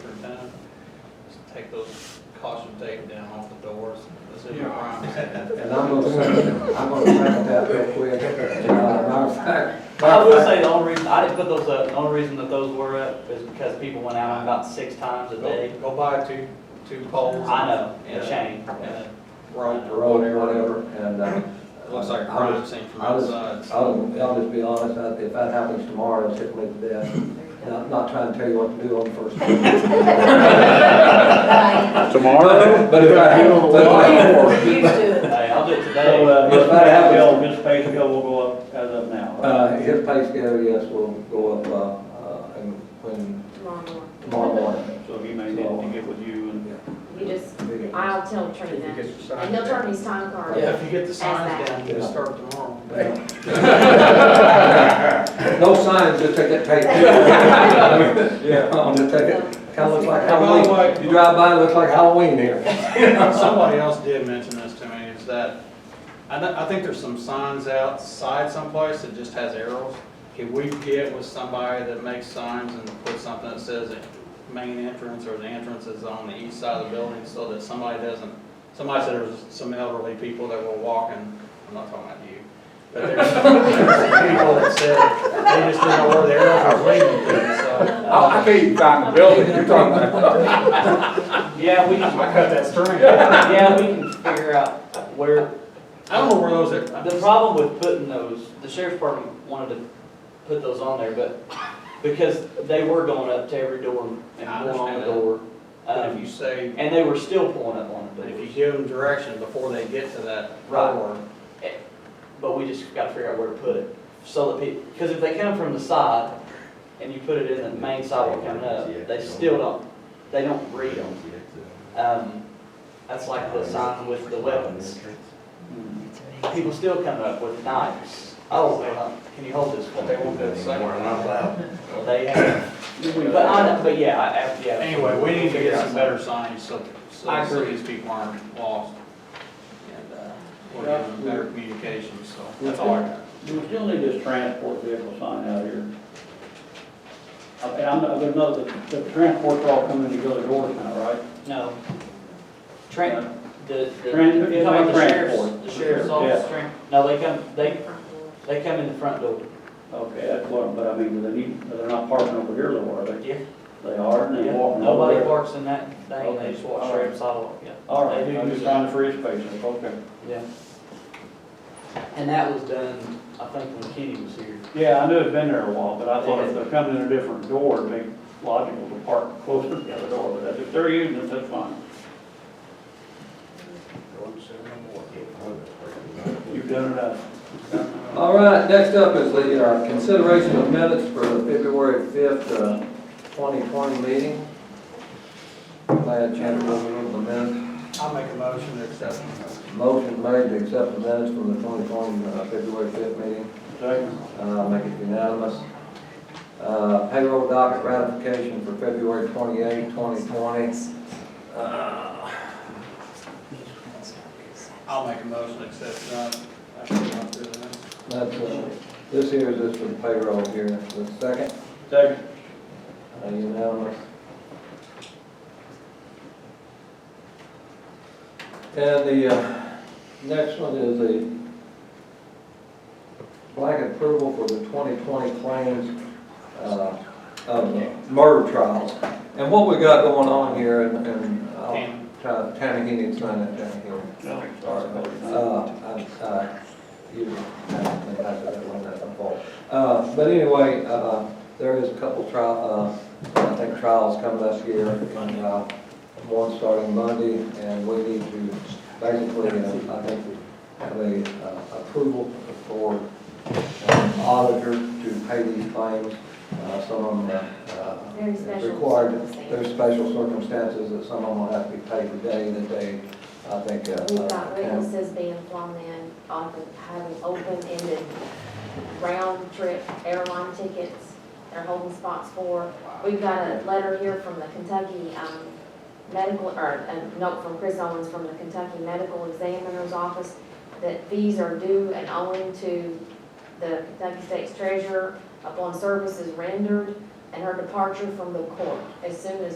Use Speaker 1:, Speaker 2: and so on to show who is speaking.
Speaker 1: superintendent, just take those caution tape down off the doors. Let's see what
Speaker 2: Yeah.
Speaker 1: Brian said.
Speaker 3: And I'm gonna second, I'm gonna second that real quick. Uh, Matter of fact.
Speaker 4: I will say the only reason, I didn't put those up, the only reason that those were up is because people went out about six times a day.
Speaker 1: Go, go buy two, two poles.
Speaker 4: I know, and
Speaker 1: Yeah.
Speaker 4: chain.
Speaker 1: And a
Speaker 3: on
Speaker 1: rope
Speaker 3: the
Speaker 1: or
Speaker 3: Road or
Speaker 1: whatever.
Speaker 3: whatever, and, uh.
Speaker 1: It Looks like a
Speaker 3: I'll
Speaker 1: crime
Speaker 3: just-
Speaker 1: scene from
Speaker 3: I'll just-
Speaker 1: outside. so-
Speaker 3: I'll, I'll just be honest, I- if that happens tomorrow, it's hit me to death. And I'm not trying to tell you what to do on the first. day.
Speaker 5: Tomorrow?
Speaker 3: But if I, but if I,
Speaker 4: Hey, I'll do it
Speaker 6: So,
Speaker 4: today.
Speaker 6: uh,
Speaker 3: But
Speaker 6: his
Speaker 3: that
Speaker 6: pay
Speaker 3: happens-
Speaker 6: scale, his pay scale will go up as of now, right?
Speaker 3: uh, his pay scale, yes, will go up, uh, uh, and when, tomorrow morning.
Speaker 6: So he may need to get with you and.
Speaker 7: You just, I'll tell Trina,
Speaker 2: If you get your sign
Speaker 7: and he'll
Speaker 2: down.
Speaker 7: turn his time card.
Speaker 1: Yeah, if you get the signs
Speaker 7: Ask that.
Speaker 1: down, you can start tomorrow.
Speaker 3: No signs, just take that tape. Yeah, I'm gonna take it, kinda looks like Halloween, you drive by, it looks like Halloween here.
Speaker 1: Somebody else did mention this to me, is that, I, thi- I think there's some signs outside someplace that just has arrows. Can we get with somebody that makes signs and put something that says the main entrance or the entrance is on the east side of the building so that somebody doesn't, somebody said there was some elderly people that were walking, I'm not talking about you, but there's there's people that said they just didn't know where the arrow was leading to, so.
Speaker 5: I I can't even find the building you're talking about.
Speaker 4: Yeah, we
Speaker 1: I
Speaker 4: can,
Speaker 1: cut that string.
Speaker 4: yeah, we can figure out where,
Speaker 1: I don't know where those are.
Speaker 4: The problem with putting those, the sheriff's department wanted to put those on there, but because they were going up to every door and
Speaker 1: I
Speaker 4: pulling on
Speaker 1: understand
Speaker 4: the
Speaker 1: that.
Speaker 4: door.
Speaker 1: But if
Speaker 4: um,
Speaker 1: you say,
Speaker 4: And they were still pulling up on the
Speaker 1: if you
Speaker 4: doors.
Speaker 1: give them direction before they get to that
Speaker 4: Right.
Speaker 1: door,
Speaker 4: But we just gotta figure out where to put it, so that people, because if they come from the side and you put it in the main sidewalk coming up, they still don't, they don't read them. Um, that's like the sign with the weapons. People still come up with knives. Oh, well, can you hold this?
Speaker 1: but they won't go somewhere.
Speaker 4: They have, but I, but yeah, I, I- yeah.
Speaker 1: Anyway, we need to get some better signage so, so
Speaker 4: I
Speaker 1: so
Speaker 4: agree.
Speaker 1: these people aren't lost. And, uh, we're getting better communication, so that's all I got.
Speaker 6: Do we still need this transport vehicle sign out here? Uh, And I'm, not- there's another, the the transport's all coming in the other doors now, right?
Speaker 4: No. Tran, the, the.
Speaker 6: Tran-
Speaker 4: you're talking about the sheriff's-
Speaker 6: transport.
Speaker 4: The sheriff's
Speaker 6: Yeah.
Speaker 4: office, tran, no, they come, they, they come in the front door.
Speaker 6: Okay, that's what, but I mean, do they need, they're not parking over here though, are they?
Speaker 4: Yeah.
Speaker 6: They are, and they're walking over
Speaker 4: Nobody
Speaker 6: there.
Speaker 4: parks in that thing, they just walk
Speaker 6: Okay.
Speaker 4: straight up the sidewalk, yeah.
Speaker 6: All right,
Speaker 4: They do
Speaker 6: I'm
Speaker 4: use
Speaker 6: just
Speaker 4: it.
Speaker 6: trying to free up space, okay.
Speaker 4: Yeah. And that was done, I think, when Kenny was here.
Speaker 6: Yeah, I knew it'd been there a while, but I thought if they're coming in a different door, it'd be logical to park closer to the other door, but if they're using it, that's fine. You've done enough.
Speaker 3: All right, next up is the uh, consideration of minutes for the February 5th, uh, 2020 meeting. Glad Chandler was in the minutes.
Speaker 1: I'll make a motion to accept.
Speaker 3: Motion made to accept the minutes from the 2020, uh, February 5th meeting.
Speaker 6: Second.
Speaker 3: Uh, Make it unanimous. Uh, Payroll docket ratification for February 28, 2020.
Speaker 1: I'll make a motion to accept, uh, after we go through the minutes.
Speaker 3: That's, uh, this here is just for the payroll here. The second,
Speaker 6: Second.
Speaker 3: uh, unanimous. And the uh, next one is the blanket approval for the 2020 claims uh, of the murder trials. And what we got going on here, and- and
Speaker 4: Oh.
Speaker 3: I'll
Speaker 1: Tam,
Speaker 3: try, Tammy, he needs to sign that down here. Uh, I- uh, you- I don't think I did that one, that's my fault. Uh, But anyway, uh, there is a couple trial, uh, I think trials coming this year, and uh, one starting Monday, and we need to basically, uh, I think, have a uh, approval for an auditor to pay these claims. Uh, Some of them uh,
Speaker 7: Very special.
Speaker 3: required,
Speaker 7: circumstance.
Speaker 3: there's special circumstances that some of them will have to be paid today, that they, I think. uh,
Speaker 7: We've got
Speaker 3: uh, can-
Speaker 7: witnesses being flown in on the, um, having open-ended round trip airline tickets they're holding spots for. We've got a letter here from the Kentucky, um, medical, or a note from Chris Owens from the Kentucky Medical Examiner's Office that fees are due and owing to the Kentucky State's Treasurer upon services rendered and her departure from the court as soon as